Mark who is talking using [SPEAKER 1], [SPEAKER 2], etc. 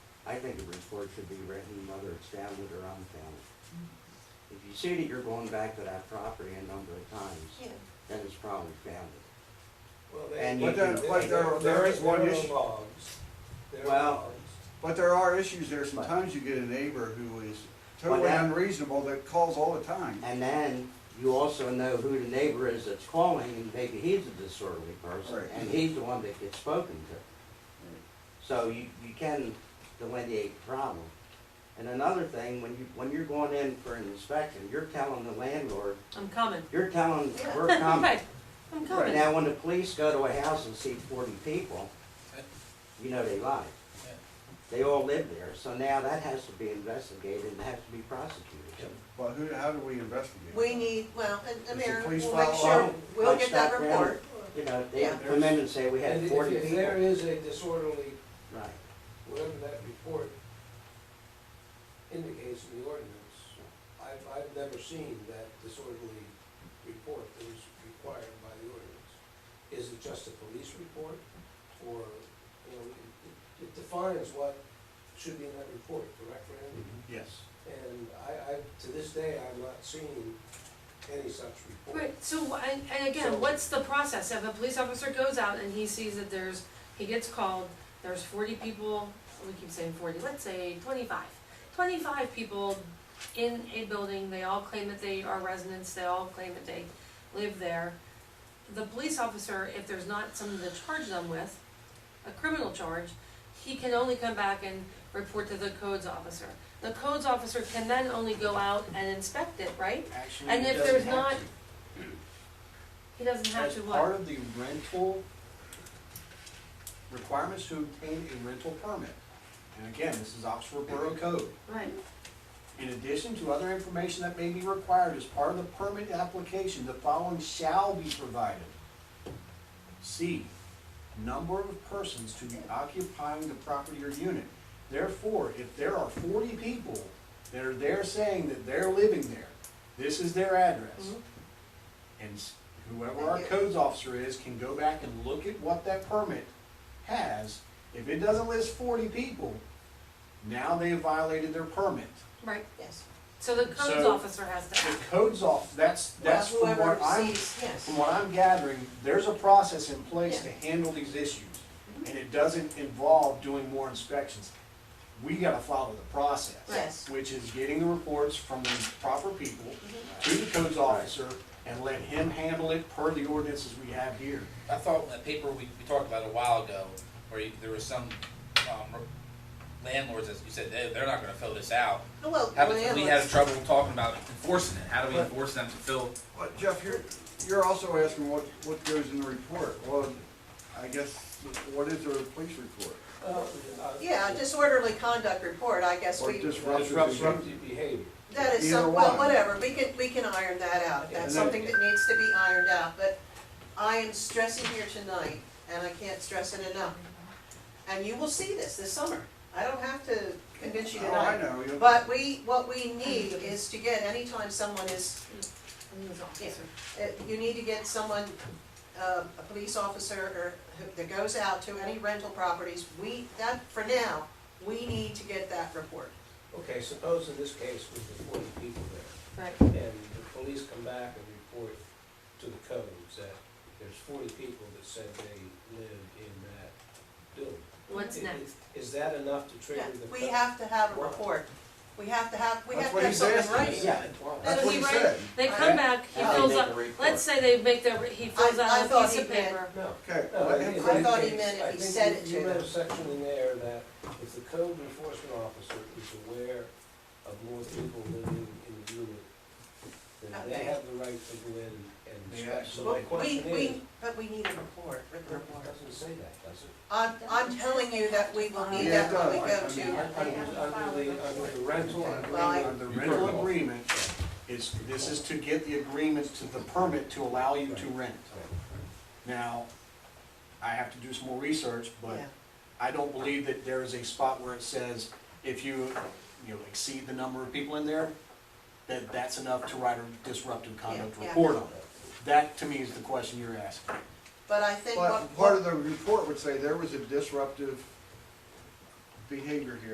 [SPEAKER 1] I think a report should be written, whether it's founded or unfounded. If you see that you're going back to that property a number of times,
[SPEAKER 2] Yeah.
[SPEAKER 1] then it's probably founded.
[SPEAKER 3] Well,
[SPEAKER 1] And
[SPEAKER 3] they,
[SPEAKER 1] you
[SPEAKER 4] But there,
[SPEAKER 1] can-
[SPEAKER 4] but there, there is one
[SPEAKER 3] There are
[SPEAKER 4] issue,
[SPEAKER 3] logs. There are
[SPEAKER 1] Well,
[SPEAKER 3] logs.
[SPEAKER 4] but there are issues there. Sometimes you get a neighbor who is totally
[SPEAKER 1] that-
[SPEAKER 4] unreasonable that calls all the time.
[SPEAKER 1] And then you also know who the neighbor is that's calling, and maybe he's a disorderly person,
[SPEAKER 4] Right.
[SPEAKER 1] and he's the one that gets spoken to. So you, you can delineate the problem. And another thing, when you, when you're going in for an inspection, you're telling the landlord,
[SPEAKER 5] I'm coming.
[SPEAKER 1] you're telling,
[SPEAKER 2] Yeah.
[SPEAKER 1] we're coming.
[SPEAKER 5] Right, I'm
[SPEAKER 1] Right
[SPEAKER 5] coming.
[SPEAKER 1] Now, when the police go to a house and see forty people, you know they lied.
[SPEAKER 3] Yeah.
[SPEAKER 1] They all live there, so now that has to be investigated and has to be
[SPEAKER 3] Yep.
[SPEAKER 1] prosecuted.
[SPEAKER 4] But who, how do we investigate?
[SPEAKER 2] We need, well, and
[SPEAKER 4] Does
[SPEAKER 2] the
[SPEAKER 4] the
[SPEAKER 2] mayor
[SPEAKER 4] police
[SPEAKER 2] will make
[SPEAKER 4] follow
[SPEAKER 2] sure,
[SPEAKER 1] up?
[SPEAKER 2] we'll
[SPEAKER 1] Like
[SPEAKER 2] get that
[SPEAKER 1] Stockman?
[SPEAKER 2] report.
[SPEAKER 1] You know, they
[SPEAKER 2] Yeah.
[SPEAKER 1] come in and say, we had
[SPEAKER 3] And if-
[SPEAKER 1] forty
[SPEAKER 3] If there
[SPEAKER 1] people.
[SPEAKER 3] is a disorderly,
[SPEAKER 1] Right.
[SPEAKER 3] whatever that report indicates in the ordinance, I've, I've never seen that disorderly report that is required by the ordinance. Is it just a police report, or, you know, it- it defines what should be in that report, correct, Randy?
[SPEAKER 4] Yes.
[SPEAKER 3] And I, I, to this day, I've not seen any such report.
[SPEAKER 5] Right, so, wh- and, and
[SPEAKER 3] So-
[SPEAKER 5] again, what's the process? If a police officer goes out and he sees that there's, he gets called, there's forty people, we keep saying forty, let's say twenty-five. Twenty-five people in a building, they all claim that they are residents, they all claim that they live there. The police officer, if there's not something to charge them with, a criminal charge, he can only come back and report to the codes officer. The codes officer can then only go out and inspect it, right?
[SPEAKER 6] Actually,
[SPEAKER 5] And
[SPEAKER 6] he
[SPEAKER 5] if
[SPEAKER 6] doesn't
[SPEAKER 5] there's
[SPEAKER 6] have
[SPEAKER 5] not-
[SPEAKER 6] to.
[SPEAKER 5] He doesn't have
[SPEAKER 6] As
[SPEAKER 5] to what?
[SPEAKER 6] part of the rental requirements to obtain a rental permit, and again, this is Oxford Borough Code.
[SPEAKER 5] Right.
[SPEAKER 6] In addition to other information that may be required as part of the permit application, the following shall be provided. C, number of persons to be occupying the property or unit. Therefore, if there are forty people that are there saying that they're living there, this is their address.
[SPEAKER 5] Mhm.
[SPEAKER 6] And s- whoever our codes officer is can go back and look at what that permit has. If it doesn't list forty people, now they have violated their permit.
[SPEAKER 5] Right,
[SPEAKER 2] Yes.
[SPEAKER 5] so the codes
[SPEAKER 6] So-
[SPEAKER 5] officer has to
[SPEAKER 6] The
[SPEAKER 5] act.
[SPEAKER 6] codes off, that's, that's
[SPEAKER 2] Well,
[SPEAKER 6] from what
[SPEAKER 2] Whoever
[SPEAKER 6] I'm,
[SPEAKER 2] sees, yes.
[SPEAKER 6] from what I'm gathering, there's a process in place to
[SPEAKER 2] Yeah. Mm-hmm.
[SPEAKER 6] handle these issues. And it doesn't involve doing more inspections. We gotta follow the process.
[SPEAKER 2] Yes.
[SPEAKER 6] Which is getting the reports from the proper people
[SPEAKER 2] Mm-hmm.
[SPEAKER 6] to the codes officer and let him handle it per the ordinances we have here.
[SPEAKER 7] I thought in that paper we, we talked about a while ago, where you, there was some, um, landlords, as you said, they, they're not gonna fill this out.
[SPEAKER 2] Well,
[SPEAKER 7] How about, we had
[SPEAKER 2] landlords.
[SPEAKER 7] trouble talking about enforcing it, how do we
[SPEAKER 4] But-
[SPEAKER 7] enforce them to fill?
[SPEAKER 4] But Jeff, you're, you're also asking what, what goes in the report. Well, I guess, what is a police report?
[SPEAKER 3] Uh, uh,
[SPEAKER 2] Yeah, disorderly conduct report, I guess
[SPEAKER 4] Or
[SPEAKER 2] we,
[SPEAKER 4] disruptive behavior?
[SPEAKER 3] Disruptive behavior.
[SPEAKER 2] that is
[SPEAKER 4] either
[SPEAKER 2] some, well,
[SPEAKER 4] one.
[SPEAKER 2] whatever, we can, we can iron that out. That's
[SPEAKER 3] Yeah,
[SPEAKER 4] and then-
[SPEAKER 2] something that needs to be ironed out, but I am stressing here tonight, and I can't stress it enough. And you will see this this summer. I don't have to convince you
[SPEAKER 4] Oh, I
[SPEAKER 2] tonight.
[SPEAKER 4] know. you-
[SPEAKER 2] But we, what we need is to get, anytime someone is
[SPEAKER 5] Codes officer.
[SPEAKER 2] Uh, you need to get someone, uh, a police officer or who- that goes out to any rental properties, we, that, for now, we need to get that report.
[SPEAKER 3] Okay, suppose in this case with the forty people there,
[SPEAKER 5] Right,
[SPEAKER 3] and the police come back and report to the codes that there's forty people that said they live in that building.
[SPEAKER 5] what's
[SPEAKER 3] I-
[SPEAKER 5] next?
[SPEAKER 3] i- Is that enough to
[SPEAKER 2] Yeah,
[SPEAKER 3] trigger the?
[SPEAKER 2] we
[SPEAKER 3] co-
[SPEAKER 2] have to have a
[SPEAKER 3] Why?
[SPEAKER 2] report. We have to have, we
[SPEAKER 4] That's
[SPEAKER 2] have
[SPEAKER 4] what
[SPEAKER 2] to have
[SPEAKER 4] he's
[SPEAKER 2] something
[SPEAKER 4] asking.
[SPEAKER 2] right.
[SPEAKER 1] Yeah.
[SPEAKER 3] Why?
[SPEAKER 4] That's what he
[SPEAKER 2] Right.
[SPEAKER 4] said.
[SPEAKER 5] They
[SPEAKER 2] I-
[SPEAKER 5] come back, he
[SPEAKER 1] How they
[SPEAKER 5] fills
[SPEAKER 1] make
[SPEAKER 5] up,
[SPEAKER 1] the report.
[SPEAKER 5] let's say they make their, he fills
[SPEAKER 2] I- I
[SPEAKER 5] out a
[SPEAKER 2] thought
[SPEAKER 5] piece
[SPEAKER 2] he
[SPEAKER 5] of
[SPEAKER 2] meant-
[SPEAKER 5] paper.
[SPEAKER 3] No.
[SPEAKER 4] Okay.
[SPEAKER 3] No, in-
[SPEAKER 4] what
[SPEAKER 3] in
[SPEAKER 4] if-
[SPEAKER 2] I
[SPEAKER 3] this
[SPEAKER 2] thought he
[SPEAKER 3] case,
[SPEAKER 2] meant if
[SPEAKER 3] I
[SPEAKER 2] he
[SPEAKER 3] think
[SPEAKER 2] said
[SPEAKER 3] you-
[SPEAKER 2] it
[SPEAKER 3] You
[SPEAKER 2] to
[SPEAKER 3] read a
[SPEAKER 2] them.
[SPEAKER 3] section in there that if the code enforcement officer is aware of more people living in the unit, then they
[SPEAKER 2] Okay.
[SPEAKER 3] have the right to go in and
[SPEAKER 6] They
[SPEAKER 3] inspect. So
[SPEAKER 6] absolutely-
[SPEAKER 3] my
[SPEAKER 2] We,
[SPEAKER 3] question is,
[SPEAKER 2] we, but we need a report, written
[SPEAKER 3] It
[SPEAKER 2] report.
[SPEAKER 3] doesn't say that, does it?
[SPEAKER 2] I'm, I'm telling you that we will need
[SPEAKER 4] Yeah,
[SPEAKER 2] that when we
[SPEAKER 4] no, I-
[SPEAKER 2] go
[SPEAKER 4] I mean,
[SPEAKER 2] to,
[SPEAKER 3] Under, under the, under the rental, under the-
[SPEAKER 2] Well, I-
[SPEAKER 6] Under
[SPEAKER 3] You
[SPEAKER 6] rental
[SPEAKER 3] permit.
[SPEAKER 6] agreement is, this is to get the agreements to the permit to allow you to rent. Now, I have to do some more research, but
[SPEAKER 2] Yeah.
[SPEAKER 6] I don't believe that there is a spot where it says if you, you know, exceed the number of people in there, that that's enough to write a disruptive conduct
[SPEAKER 2] Yeah, yeah.
[SPEAKER 6] report on it. That to me is the question you're asking.
[SPEAKER 2] but I think what.
[SPEAKER 4] But part of the report would say there was a disruptive behavior here.